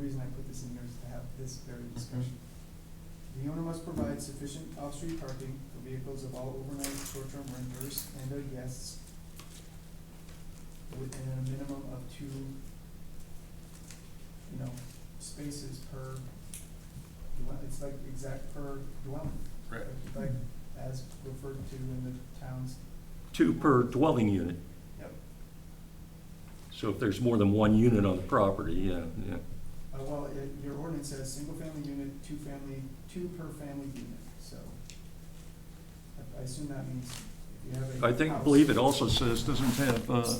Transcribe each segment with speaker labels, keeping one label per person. Speaker 1: reason I put this in here is to have this very discussion. The owner must provide sufficient off-street parking for vehicles of all overnight, short-term renters and their guests within a minimum of two, you know, spaces per dwelling, it's like exact per dwelling.
Speaker 2: Right.
Speaker 1: Like, as referred to in the town's,
Speaker 3: Two per dwelling unit.
Speaker 1: Yep.
Speaker 3: So if there's more than one unit on the property, yeah, yeah.
Speaker 1: uh, well, it, your ordinance says, single-family unit, two-family, two per family unit, so. I- I assume that means if you have a.
Speaker 3: I think,
Speaker 1: house-
Speaker 3: believe it also says, doesn't have, uh,
Speaker 1: Yep, So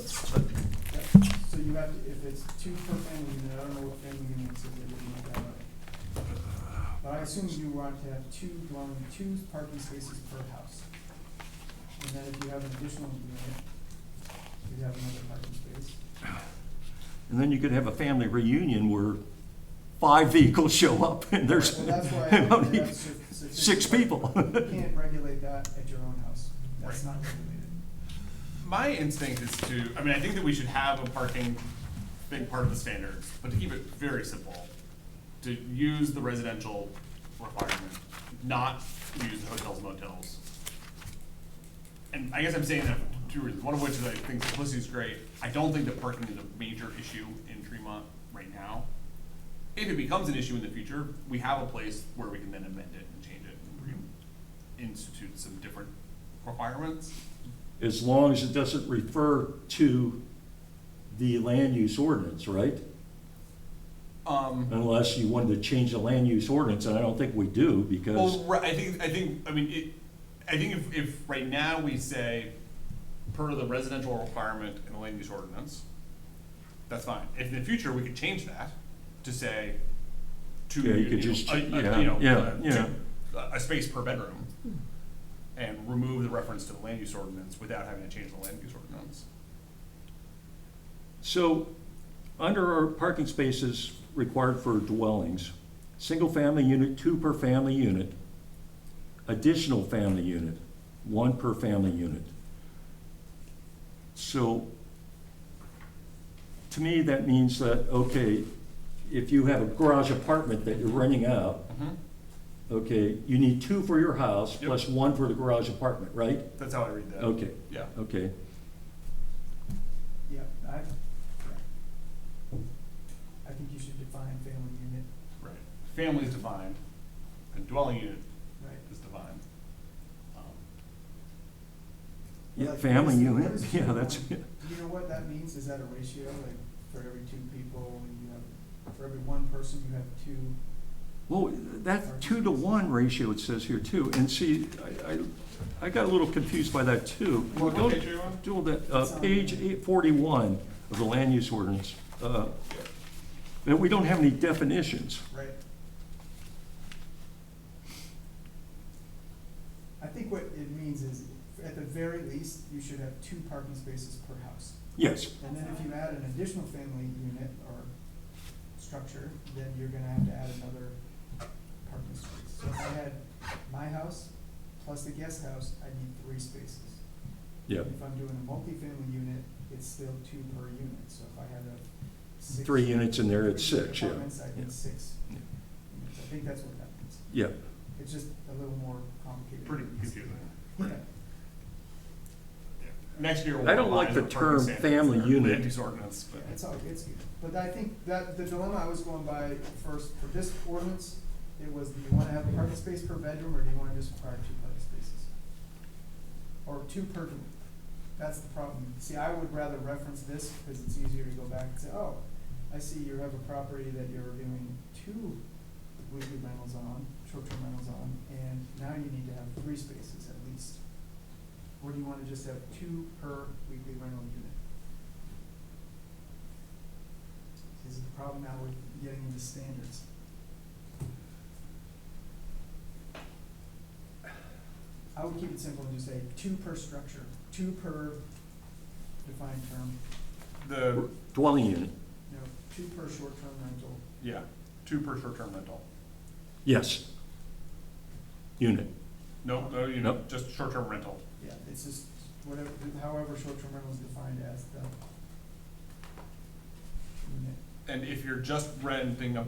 Speaker 1: you have, to if it's two per family unit, I don't know what family units it would be that way. But I assume you want to have two dwelling, two parking spaces per house. And then if you have an additional unit, you'd have another parking space.
Speaker 3: and then you could have a family reunion where five vehicles show up and there's
Speaker 1: Well, that's why I think you have su- sufficient
Speaker 3: six
Speaker 1: parking.
Speaker 3: people.
Speaker 1: You can't regulate that at your own house. That's not regulated.
Speaker 2: My instinct is to, I mean, I think that we should have a parking big part of the standards, but to keep it very simple, to use the residential requirement, not use hotels, motels. And I guess I'm saying that for two reasons, one of which is I think simplicity is great. I don't think that parking is a major issue in Tremont right now. If it becomes an issue in the future, we have a place where we can then amend it and change it, and we can institute some different requirements.
Speaker 3: As long as it doesn't refer to the land use ordinance, right?
Speaker 2: Um,
Speaker 3: Unless you wanted to change the land use ordinance, and I don't think we do, because,
Speaker 2: Well, right, I think, I think, I mean, it, I think if, if right now we say, per the residential requirement in the land use ordinance, that's fine. If in the future, we could change that to say, to,
Speaker 3: Yeah, you could
Speaker 2: you know,
Speaker 3: just-
Speaker 2: a- a-
Speaker 3: yeah,
Speaker 2: you know,
Speaker 3: yeah,
Speaker 2: uh, to-
Speaker 3: yeah.
Speaker 2: a- a space per bedroom, and remove the reference to the land use ordinance without having to change the land use ordinance.
Speaker 3: so, under our parking spaces required for dwellings, single-family unit, two per family unit, additional family unit, one per family unit. So, to me, that means that, okay, if you have a garage apartment that you're renting out, okay, you need two for your house,
Speaker 2: Yep.
Speaker 3: plus one for the garage apartment, right?
Speaker 2: That's how I read that.
Speaker 3: Okay,
Speaker 2: Yeah.
Speaker 3: okay.
Speaker 1: Yeah, I, yeah. I think you should define family unit,
Speaker 2: Right. Family is defined, and dwelling unit
Speaker 1: right?
Speaker 2: is defined. Um,
Speaker 3: Yeah,
Speaker 1: Like,
Speaker 3: family
Speaker 1: what is- what
Speaker 3: unit,
Speaker 1: is
Speaker 3: yeah,
Speaker 1: two
Speaker 3: that's,
Speaker 1: point- Do you know what that means? Is that a ratio, like, for every two people, you have, for every one person, you have two?
Speaker 3: well, that two to one ratio it says here too, and see, I, I, I got a little confused by that too.
Speaker 2: What
Speaker 3: Go
Speaker 2: page are you on?
Speaker 3: Do all that, uh, page eight forty-one of the land use ordinance, uh, that we don't have any definitions.
Speaker 1: Right. I think what it means is, at the very least, you should have two parking spaces per house.
Speaker 3: Yes,
Speaker 1: And then if you add an additional family unit or structure, then you're gonna have to add another parking space. So if I had my house plus the guest house, I need three spaces.
Speaker 3: yeah,
Speaker 1: If I'm doing a multifamily unit, it's still two per unit, so if I had a six.
Speaker 3: three units in there, it's six, yeah,
Speaker 1: Apartments, I
Speaker 3: yeah.
Speaker 1: need six.
Speaker 3: Yeah.
Speaker 1: units. I think that's what happens.
Speaker 3: yeah.
Speaker 1: It's just a little more complicated.
Speaker 2: pretty confusing.
Speaker 1: Yeah,
Speaker 2: Next year, we'll.
Speaker 3: I don't like
Speaker 2: revise
Speaker 3: the
Speaker 2: our parking
Speaker 3: term
Speaker 2: standards
Speaker 3: family
Speaker 2: or
Speaker 3: unit.
Speaker 2: land use ordinance,
Speaker 1: yeah,
Speaker 2: but
Speaker 1: it's all, it's, good. but I think that the dilemma I was going by first, for this ordinance, it was, do you wanna have a parking space per bedroom, or do you wanna just require two parking spaces? Or two per, dwelling. that's the problem. See, I would rather reference this, because it's easier to go back and say, oh, I see you have a property that you're doing two weekly rentals on, short-term rentals on, and now you need to have three spaces at least. Or do you wanna just have two per weekly rental unit? This is the problem now with getting into standards. I would keep it simple and just say two per structure, two per defined term,
Speaker 2: the,
Speaker 3: Dwelling unit,
Speaker 1: no, two per short-term rental,
Speaker 2: yeah, two per short-term rental.
Speaker 3: yes. Unit,
Speaker 2: No, no, you know,
Speaker 3: Nope.
Speaker 2: just short-term rental.
Speaker 1: Yeah, it's just whatever, however short-term rental is defined as the unit.
Speaker 2: And if you're just renting a